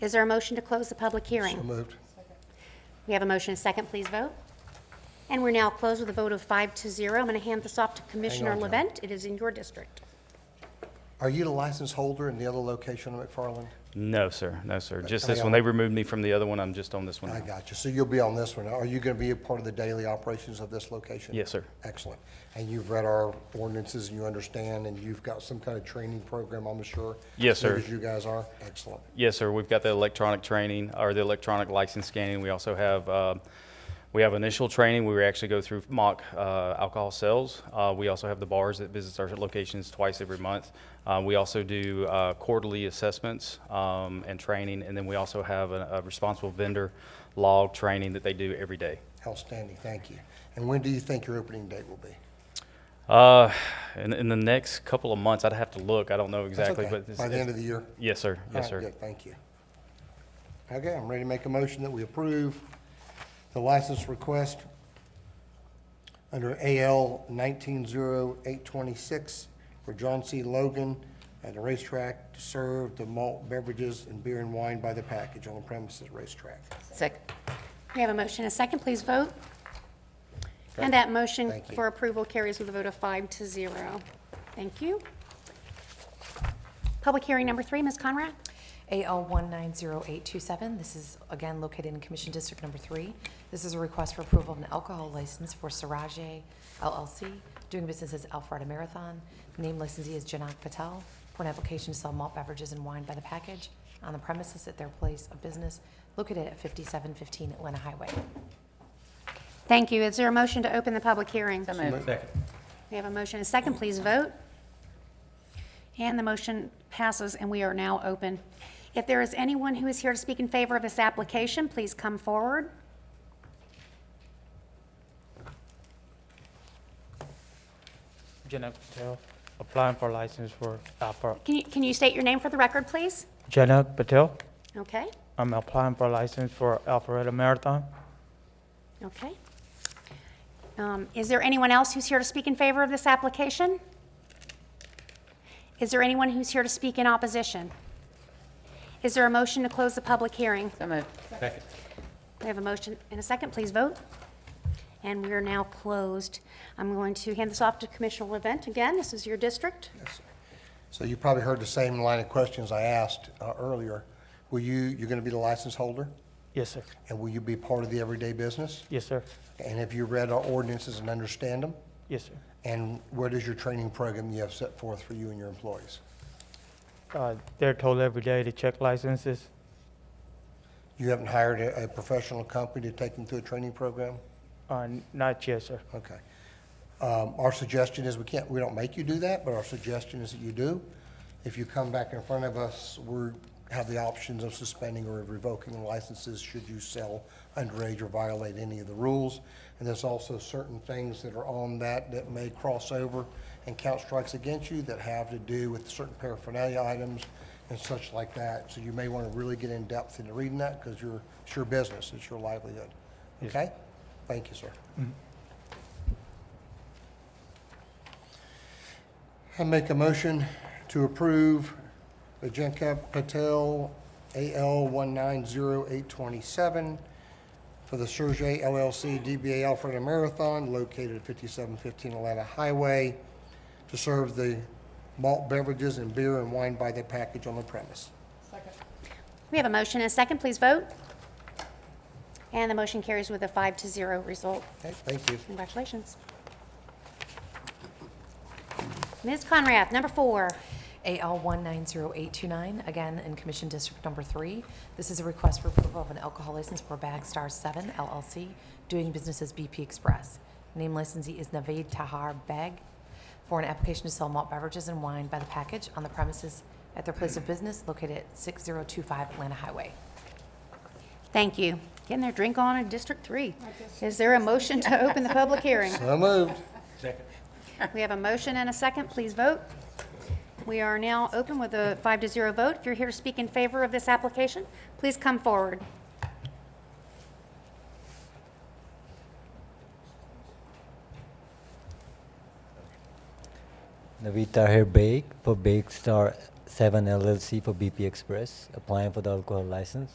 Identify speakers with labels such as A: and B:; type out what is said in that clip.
A: Is there a motion to close the public
B: So
A: hearing?
B: moved.
A: We have a motion and a second, please vote. And we're now closed with a vote of five to zero. I'm going to hand this off to Commissioner
B: John.
A: Levent. It is in your district.
B: Are you the license holder in the other location of McFarland?
C: No, sir. No, sir. Just
B: coming
C: this one.
B: out-
C: They removed me from the other one. I'm just on this one
B: I
C: now.
B: got you. So you'll be on this one. Are you going to be a part of the daily operations of this location?
C: Yes, sir.
B: Excellent. And you've read our ordinances and you understand, and you've got some kind of training program, I'm sure?
C: Yes,
B: same
C: sir.
B: As you guys are? Excellent.
C: Yes, sir. We've got the electronic training or the electronic license scanning. We also have, uh, we have initial training. We actually go through mock uh, alcohol sales. Uh, We also have the bars that visits our locations twice every month. Uh, We also do uh, quarterly assessments um, and training, and then we also have a a responsible vendor log training that they do every day.
B: Outstanding. Thank you. And when do you think your opening date will be?
C: Uh, In in the next couple of months, I'd have to look. I don't know
B: That's
C: exactly,
B: okay.
C: but. it's-
B: By the
C: it's-
B: end of the year?
C: Yes, sir.
B: All
C: Yes, sir.
B: right, good, thank you. Okay, I'm ready to make a motion that we approve the license request under AL 190826 for John C. Logan at the racetrack to serve the malt beverages and beer and wine by the package on the premises racetrack.
A: Second. We have a motion and a second, please vote. And that motion
B: Thank you.
A: for approval carries with a vote of five to zero. Thank you. Public hearing number three, Ms. Conrad?
D: AL 190827, this is again located in Commission District Number 3. This is a request for approval of an alcohol license for Siraje LLC, doing business as Alpharetta Marathon. Name licensee is Janak Patel, for an application to sell malt beverages and wine by the package on the premises at their place of business located at 5715 Atlanta Highway.
A: Thank you. Is there a motion to open the public hearing?
E: So moved.
A: We have a motion and a second, please vote. And the motion passes, and we are now open. If there is anyone who is here to speak in favor of this application, please come forward.
F: Janak Patel, applying for license for Alpha.
A: Can you, can you state your name for the record, please?
F: Janak Patel,
A: Okay,
F: I'm applying for license for Alpharetta Marathon.
A: okay. Um, Is there anyone else who's here to speak in favor of this application? Is there anyone who's here to speak in opposition? Is there a motion to close the public hearing?
E: So moved.
A: We have a motion and a second, please vote. And we are now closed. I'm going to hand this off to Commissioner Levent again, this is your district.
B: So you probably heard the same line of questions I asked uh, earlier. Will you, you're going to be the license holder?
F: Yes, sir.
B: And will you be part of the everyday business?
F: Yes, sir.
B: And have you read our ordinances and understand them?
F: Yes, sir.
B: And what is your training program you have set forth for you and your employees?
F: Uh, They're told every day to check licenses.
B: You haven't hired a, a professional company to take them through a training program?
F: Uh, Not yet, sir.
B: Okay. Um, our suggestion is, we can't, we don't make you do that, but our suggestion is that you do. If you come back in front of us, we have the options of suspending or revoking licenses should you sell underage or violate any of the rules. And there's also certain things that are on that that may cross over and count strikes against you that have to do with certain paraphernalia items and such like that. So you may want to really get in depth into reading that because you're, it's your business, it's your livelihood. Okay? Thank you, sir. I make a motion to approve the Jacob Patel AL 190827 for the Sergey LLC DBA Alfred Marathon located at 5715 Atlanta Highway to serve the malt beverages and beer and wine by the package on the premise.
A: We have a motion and a second, please vote. And the motion carries with a five to zero result.
B: Okay, thank you.
A: Congratulations. Ms. Conrad, number four.
D: AL 190829, again in Commission District Number 3. This is a request for approval of an alcohol license for Bagstar 7 LLC, doing business as BP Express. Name licensee is Naveed Tahar Beg, for an application to sell malt beverages and wine by the package on the premises at their place of business located at 6025 Atlanta Highway.
A: Thank you. Getting their drink on in District Three. Is there a motion to open the public hearing?
B: So moved.
A: We have a motion and a second, please vote. We are now open with a five to zero vote. If you're here to speak in favor of this application, please come forward.
G: Navita here, Bake for Bake Star
E: Seven LLC for BP Express, applying for the alcohol license.